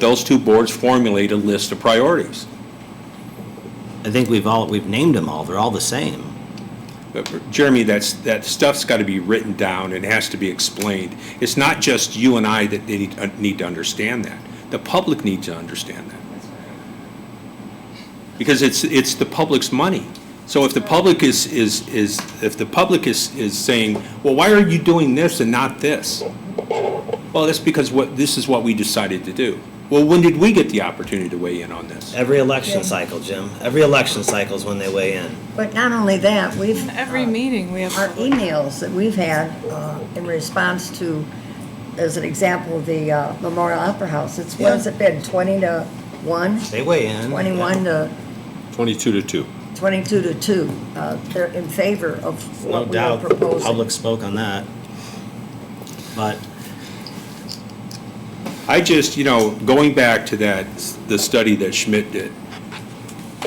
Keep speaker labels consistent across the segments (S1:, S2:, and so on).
S1: Those two boards formulate a list of priorities.
S2: I think we've all, we've named them all, they're all the same.
S1: But Jeremy, that's, that stuff's got to be written down and has to be explained. It's not just you and I that need, uh, need to understand that. The public needs to understand that. Because it's, it's the public's money. So if the public is, is, is, if the public is, is saying, well, why are you doing this and not this? Well, that's because what, this is what we decided to do. Well, when did we get the opportunity to weigh in on this?
S2: Every election
S3: Yeah.
S2: cycle, Jim, every election cycle is when they weigh in.
S3: But not only that, we've.
S4: Every
S3: uh,
S4: meeting we have.
S3: Our emails that we've had uh, in response to, as an example, the uh, Memorial Opera House, it's, what has it been, 20 to 1?
S2: They weigh in.
S3: 21 to,
S5: 22 to 2.
S3: 22 to 2. Uh, They're in favor of
S2: No
S3: what we are
S2: doubt, the public
S3: proposing.
S2: spoke on that. But
S1: I just, you know, going back to that, the study that Schmidt did,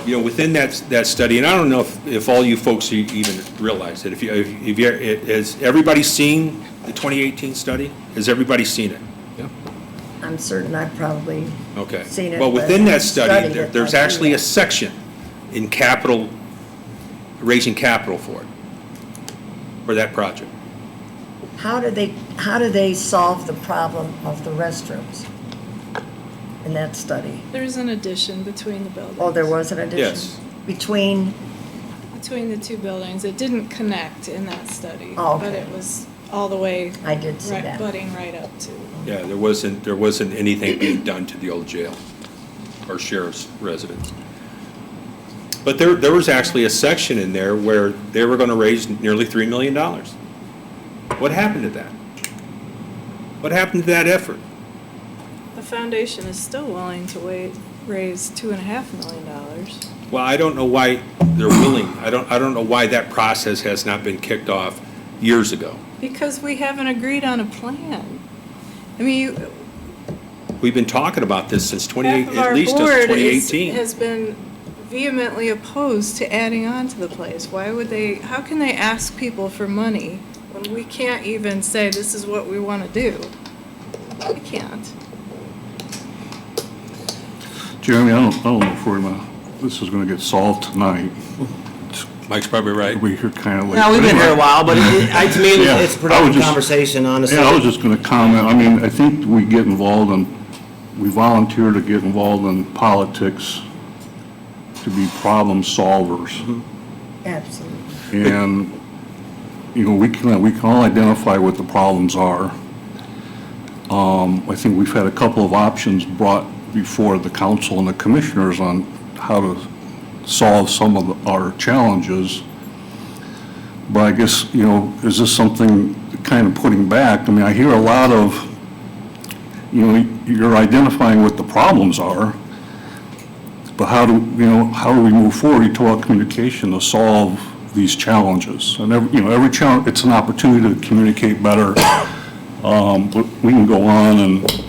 S1: you know, within that, that study, and I don't know if, if all you folks e- even realize it, if you, if you, has everybody seen the 2018 study? Has everybody seen it?
S3: I'm certain I've probably
S1: Okay.
S3: Seen it,
S1: Well, within
S3: but
S1: that
S3: study
S1: study, there-
S3: it,
S1: there's
S3: I've seen
S1: actually a
S3: it.
S1: section in capital, raising capital for it, for that project.
S3: How do they, how do they solve the problem of the restrooms in that study?
S4: There's an addition between the buildings.
S3: Oh, there was an addition?
S1: Yes.
S3: Between,
S4: Between the two buildings. It didn't connect in that study.
S3: Oh,
S4: But
S3: okay.
S4: it was all the way.
S3: I did see
S4: right-
S3: that.
S4: Butting right up to.
S1: Yeah, there wasn't, there wasn't anything being done to the old jail or sheriff's residence. But there, there was actually a section in there where they were gonna raise nearly three million dollars. What happened to that? What happened to that effort?
S4: The foundation is still willing to wait, raise two and a half million dollars.
S1: Well, I don't know why they're willing, I don't, I don't know why that process has not been kicked off years ago.
S4: Because we haven't agreed on a plan. I mean, you-
S1: We've been talking about this since twenty,
S4: half of
S1: at
S4: our
S1: least
S4: board
S1: since twenty
S4: is-
S1: eighteen.
S4: has been vehemently opposed to adding on to the place. Why would they, how can they ask people for money when we can't even say, this is what we want to do? We can't.
S6: Jeremy, I don't, I don't know if we're gonna, this is gonna get solved tonight.
S1: Mike's probably right.
S6: We hear kind of late.
S2: No, we've been here a while, but it, I, to me,
S6: Yeah,
S2: it's a
S6: I
S2: productive
S6: was just-
S2: conversation, honestly.
S6: Yeah, I was just gonna comment, I mean, I think we get involved in, we volunteer to get involved in politics to be problem
S2: Mm-hmm.
S6: solvers.
S3: absolutely.
S6: And, you know, we can, we can all identify what the problems are. Um, I think we've had a couple of options brought before the council and the commissioners on how to solve some of our challenges. But I guess, you know, is this something kind of putting back? I mean, I hear a lot of, you know, you're identifying what the problems are, but how do, you know, how do we move forward? You talk communication to solve these challenges. And every, you know, every challenge, it's an opportunity to communicate better. Um, But we can go on and,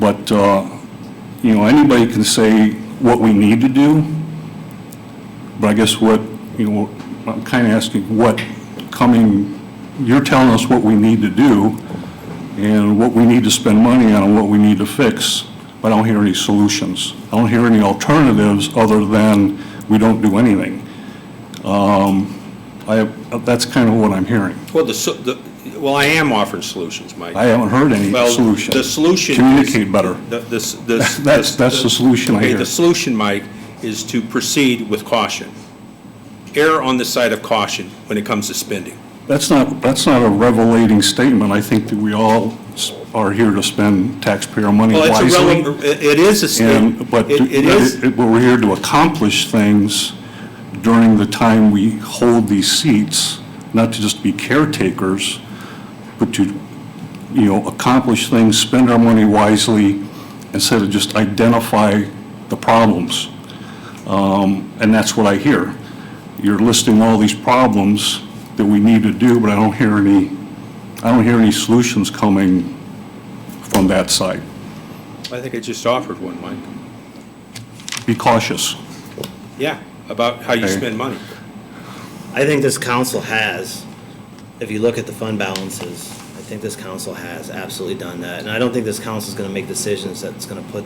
S6: but, uh, you know, anybody can say what we need to do, but I guess what, you know, I'm kind of asking what coming, you're telling us what we need to do and what we need to spend money on and what we need to fix, but I don't hear any solutions. I don't hear any alternatives other than we don't do anything. Um, I, that's kind of what I'm hearing.
S1: Well, the, so- the, well, I am offering solutions, Mike.
S6: I haven't heard any
S1: Well,
S6: solution.
S1: the solution is-
S6: Communicate better.
S1: The- this- this-
S6: That's- that's the solution I
S1: Okay,
S6: hear.
S1: the solution, Mike, is to proceed with caution. Err on the side of caution when it comes to spending.
S6: That's not, that's not a revelating statement. I think that we all s- are here to spend taxpayer money
S1: Well,
S6: wisely.
S1: it's a, rele- it it is a,
S6: And,
S1: st-
S6: but
S1: it it is,
S6: it- we're here to accomplish things during the time we hold these seats, not to just be caretakers, but to, you know, accomplish things, spend our money wisely, instead of just identify the problems. Um, And that's what I hear. You're listing all these problems that we need to do, but I don't hear any, I don't hear any solutions coming from that side.
S1: I think I just offered one, Mike.
S6: Be cautious.
S1: Yeah, about how you
S6: Okay.
S1: spend money.
S2: I think this council has, if you look at the fund balances, I think this council has absolutely done that. And I don't think this council's gonna make decisions that's gonna put